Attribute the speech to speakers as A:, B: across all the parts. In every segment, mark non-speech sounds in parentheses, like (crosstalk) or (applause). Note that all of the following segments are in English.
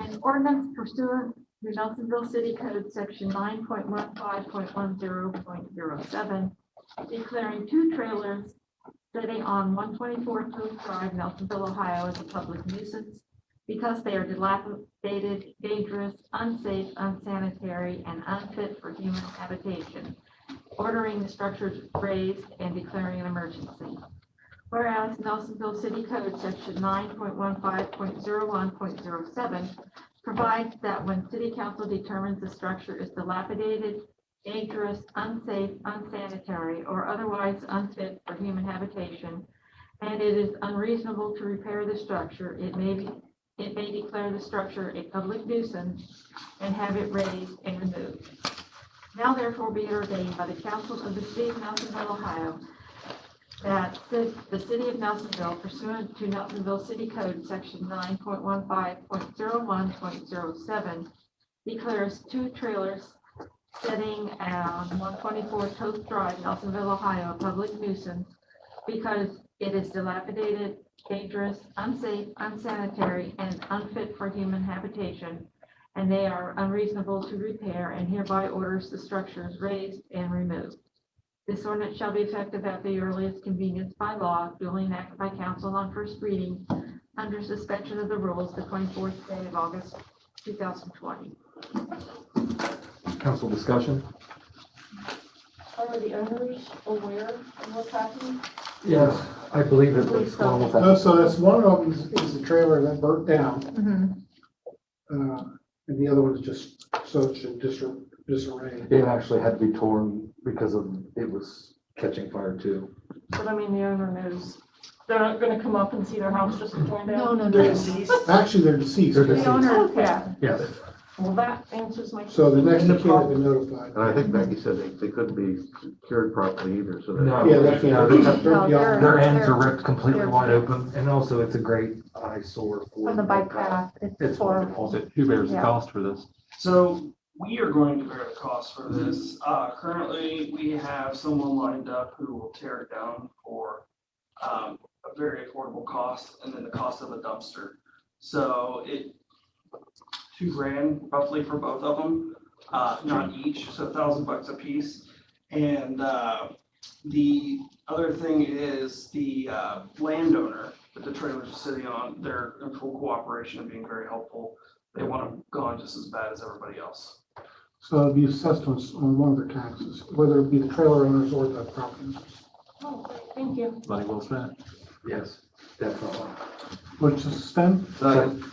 A: An ordinance pursuant to Nelsonville City Code Section nine point one five point one zero point zero seven, declaring two trailers sitting on one twenty-four Toad Drive, Nelsonville, Ohio as a public nuisance because they are dilapidated, dangerous, unsafe, unsanitary, and unfit for human habitation, ordering the structures raised and declaring an emergency. Whereas Nelsonville City Code Section nine point one five point zero one point zero seven provides that when city council determines the structure is dilapidated, dangerous, unsafe, unsanitary, or otherwise unfit for human habitation, and it is unreasonable to repair the structure, it may be, it may declare the structure a public nuisance and have it raised and removed. Now therefore be it ordained by the council of the city of Nelsonville, Ohio, that the, the city of Nelsonville pursuant to Nelsonville City Code, section nine point one five point zero one point zero seven, declares two trailers sitting on one twenty-four Toth Drive, Nelsonville, Ohio, a public nuisance because it is dilapidated, dangerous, unsafe, unsanitary, and unfit for human habitation, and they are unreasonable to repair and hereby orders the structures raised and removed. This ordinance shall be effective at the earliest convenience by law, duly enacted by council on first reading under suspension of the rules the twenty-fourth day of August, two thousand twenty.
B: Council discussion?
C: Are the owners aware of what's happening?
B: Yes, I believe it was one of them.
D: Uh, So that's one of them is- is the trailer that burnt down, uh, and the other one is just such in disar- disarray.
B: It actually had to be torn because of, it was catching fire too.
C: But I mean, the owner knows. They're not gonna come up and see their house just torn down?
A: No, no,
D: They're
A: no.
D: deceased? Actually, they're
B: They're
D: deceased,
B: deceased.
A: The owner,
C: Okay,
B: Yes.
C: well, that answers my.
D: so the next
C: The
D: two can't
C: problem-
D: be notified.
E: And I think Becky said they, they couldn't be cured properly either, so
B: Oh, No.
E: that.
D: Yeah, that's,
B: Yeah,
D: they're
B: they're-
D: burnt
F: they're-
D: beyond.
B: Their ends are ripped completely
F: They're-
B: wide open and also it's a great eyesore for.
F: On the bike path, it's
B: It's
F: for,
B: horrible.
E: Who bears
F: the
E: cost for this?
G: So we are going to bear the cost for this. Uh, currently, we have someone lined up who will tear it down for um, a very affordable cost and then the cost of a dumpster. So it, two grand roughly for both of them, uh, not each, so a thousand bucks a piece. And, uh, the other thing is the, uh, landowner that the trailers are sitting on, they're in full cooperation and being very helpful they want them gone just as bad as everybody else.
D: So it'll be assessed on, s- on one of their taxes, whether it be the trailer owners or the property owners,
C: Oh, great, Thank you.
E: Money well spent.
B: Yes, definitely.
D: which is spent,
B: Second.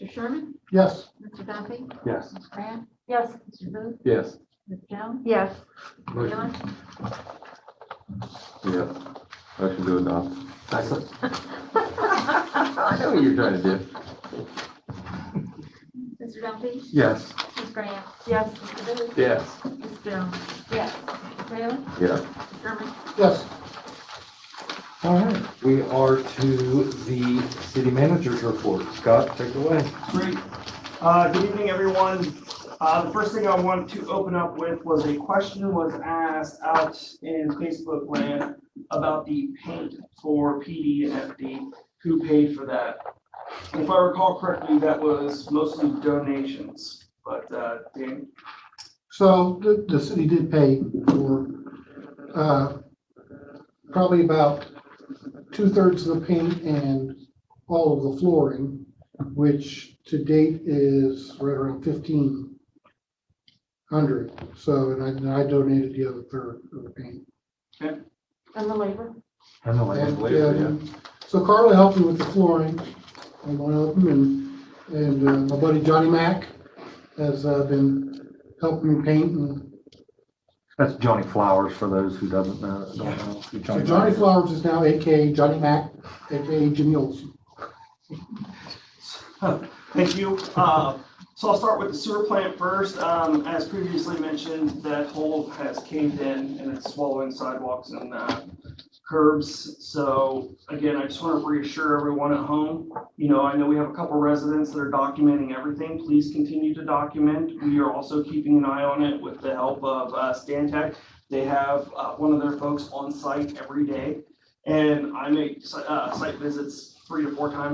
A: Mr. Sherman?
D: yes.
A: Mr. Duffy?
B: Yes.
A: Mr. Grant?
C: Yes,
A: Mr. Booth?
E: Yes.
A: Ms. Jones?
F: yes,
B: Motion.
E: Yeah. Motion to adopt.
B: Second.
E: I know what you're trying to do.
A: Mr. Duffy?
B: Yes.
A: Ms. Grant?
C: yes,
A: Mr. Booth?
E: Yes.
A: Ms. Jones?
C: yes.
A: Mr. Taylor?
E: Yeah.
A: Mr. Sherman?
D: Yes.
B: All right, we are to the city manager's report. Scott, take it away.
G: Great. Uh, good evening, everyone. Uh, the first thing I wanted to open up with was a question was asked out in Facebook land about the paint for PD and FD, who paid for that? If I recall correctly, that was mostly donations, but, uh, Dan,
D: So the, the city did pay for, uh, probably about two-thirds of the paint and all of the flooring, which to date is right around fifteen hundred. So, and I, and I donated the other third of the paint.
C: And the labor?
B: I know, I
D: And,
B: have labor, yeah.
D: um, So Carla helped me with the flooring on one of them, and, and uh, my buddy Johnny Mack has uh, been helping me paint and
B: That's Johnny Flowers for those who doesn't know, don't
G: Yeah.
B: know. who
D: So Johnny
B: is.
D: Flowers is now AKA Johnny Mac, AKA Jimmy Olsen.
G: (laughs) Thank you. Uh, So I'll start with the sewer plant first. Um, As previously mentioned, that hole has caved in and it's swallowing sidewalks and uh, curbs. So again, I just want to reassure everyone at home, you know, I know we have a couple residents that are documenting everything. Please continue to document. We are also keeping an eye on it with the help of uh, Stantec. They have uh, one of their folks on site every day. And I make si- uh, site visits three to four times